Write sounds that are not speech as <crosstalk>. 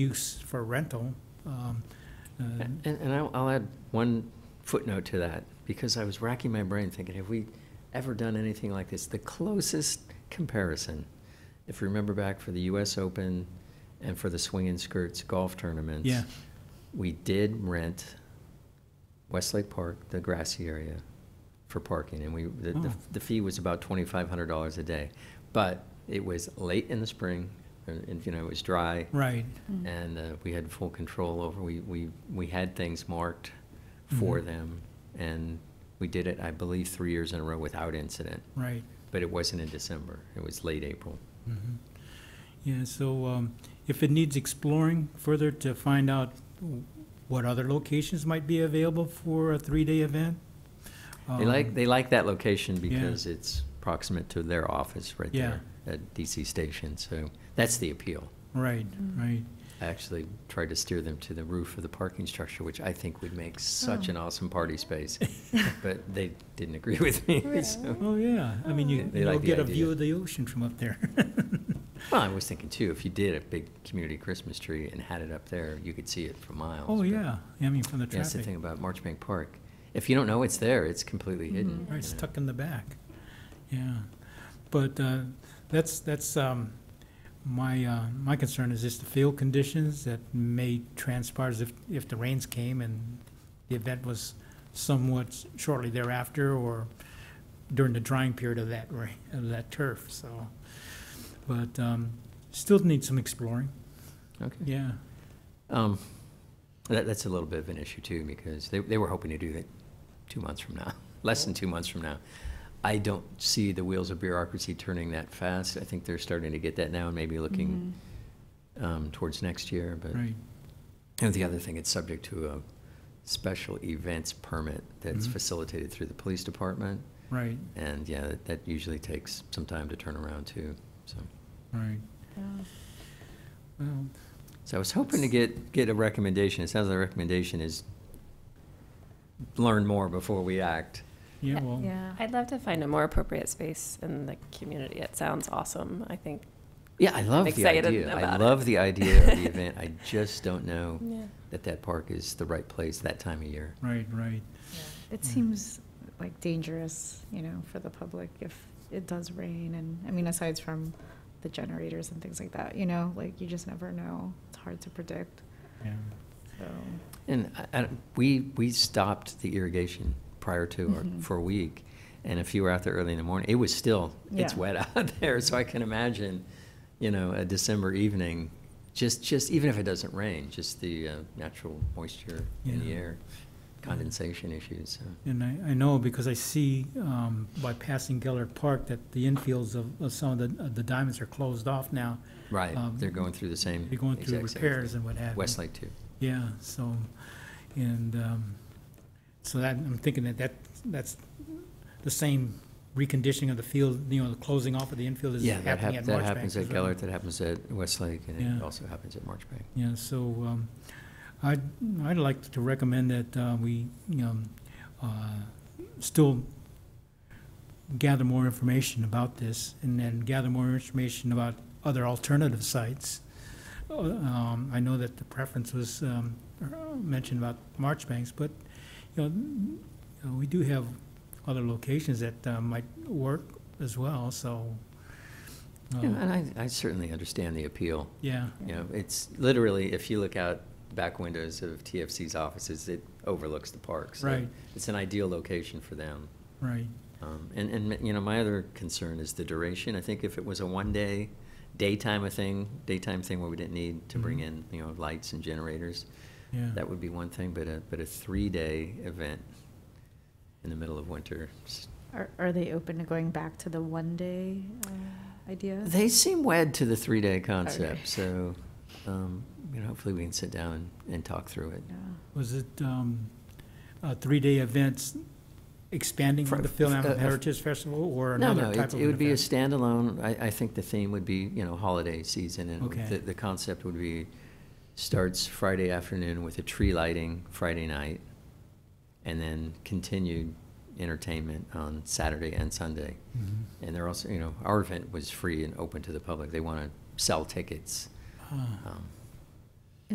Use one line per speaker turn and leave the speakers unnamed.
use for rental. um, uh,
And, and I'll, I'll add one footnote to that, because I was racking my brain thinking, have we ever done anything like this? The closest comparison, if you remember back for the US Open and for the Swing and Skirts golf tournaments.
Yeah.
We did rent Westlake Park, the grassy area, for parking, and we, the, the-
Oh.
the fee was about twenty-five hundred dollars a day. But it was late in the spring, and, and, you know, it was dry.
Right,
And uh, we had full control over, we, we, we had things marked for
Mhm.
them. And we did it, I believe, three years in a row without incident.
right.
But it wasn't in December, it was late April.
mhm. Yeah, so um, if it needs exploring further to find out what other locations might be available for a three-day event.
They like,
um,
they like that location because it's proximate to their office right
Yeah.
there at DC Station. So that's the appeal.
Right, right.
I actually tried to steer them to the roof of the parking structure, which I think would make such
Oh.
an awesome party space. But they didn't agree with me, <laughs> so.
Really?
Oh, yeah. I mean, you-
They- they
you'll
like the
get a view
idea.
of the ocean from up there. <laughs>
Well, I was thinking too, if you did a big community Christmas tree and had it up there, you could see it for miles.
Oh,
but-
yeah. I mean, from the
Yeah, That's the thing
traffic.
about Marchbank Park. If you don't know it's there, it's completely hidden.
Right, it's
you know.
tucked in the back. Yeah. But uh, that's, that's, um, my, uh, my concern is just the field conditions that may transpire as if, if the rains came and the event was somewhat shortly thereafter or during the drying period of that rain, of that turf, so. But um, still need some exploring,
Okay.
yeah.
Um, that, that's a little bit of an issue too, because they, they were hoping to do that two months from now, <laughs> less than two months from now. I don't see the wheels of bureaucracy turning that fast. I think they're starting to get that now and maybe looking, um, towards next year, but.
Right,
And the other thing, it's subject to a special events permit that's
Mhm.
facilitated through the police department.
right,
And yeah, that- that usually takes some time to turn around too, so.
right.
Mm-hmm. Yeah.
Well,
So I was hoping to get, get a recommendation. It sounds like the recommendation is learn more before we act.
yeah, well,
Yeah.
I'd love to find a more appropriate space in the community. It sounds awesome, I think.
Yeah, I love the
excited
idea. I
about it.
love the idea of
<laughs>
the event. I just don't know
Yeah.
that that park is the right place that time of year.
right, right.
It
Yeah.
seems like dangerous, you know, for the public if it does rain and, I mean, aside from the generators and things like that, you know, like you just never know. It's hard to predict,
Yeah,
so.
And I- I, we, we stopped the irrigation prior to, our-
Mhm.
for a week. And if you were out there early in the morning, it was still, it's
Yeah.
wet <laughs> out there. So I can imagine, you know, a December evening, just, just, even if it doesn't rain, just the uh, natural moisture in the
Yeah.
air, condensation issues. so.
And I, I know because I see, um, by passing Gellert Park that the infields of, of some of the, of the diamonds are closed off now.
Right,
Um,
they're going through the same.
They're going through
exact same
repairs
thing.
and what have you.
Westlake too.
Yeah, so, and, um, so that, I'm thinking that that, that's the same reconditioning of the field, you know, the closing off of the infield is
Yeah, that
happening at
hap-
Marchbank.
that happens
as
at
well.
Gellert, that happens at Westlake, and
Yeah.
it also happens at Marchbank.
Yeah, so um, I'd, I'd like to recommend that uh, we, um, uh, still gather more information about this and then gather more information about other alternative sites. Uh, um, I know that the preference was um, uh, mentioned about Marchbanks, but, you know, n- you know, we do have other locations that uh, might work as well, so. uh,
Yeah, And I, I certainly understand the appeal.
Yeah,
You know, it's literally, if you look out the back windows of TFC's offices, it overlooks the park. so
Right.
It's an ideal location for them.
right,
Um, And, and, you know, my other concern is the duration. I think if it was a one-day, daytime a thing, daytime thing where we didn't need to bring
Mhm.
in, you know, lights and generators,
yeah.
that would be one thing, but a, but a three-day event in the middle of winter. s-
Are, are they open to going back to the one-day uh, idea?
They seem wed to the three-day concept, so, um, you know, hopefully we can sit down and talk through it.
Yeah.
Was it um, a three-day events expanding
For-
the Phil
uh, uh,
Amherst Heritage Festival or
No,
another
no,
type of
it,
event?
it would be a standalone, I, I think the theme would be, you know, holiday season, and it would-
Okay.
the, the concept would be, starts Friday afternoon with a tree lighting Friday night, and then continued entertainment on Saturday and Sunday.
Mhm.
And they're also, you know, our event was free and open to the public, they wanna sell tickets.
Ah,
Um,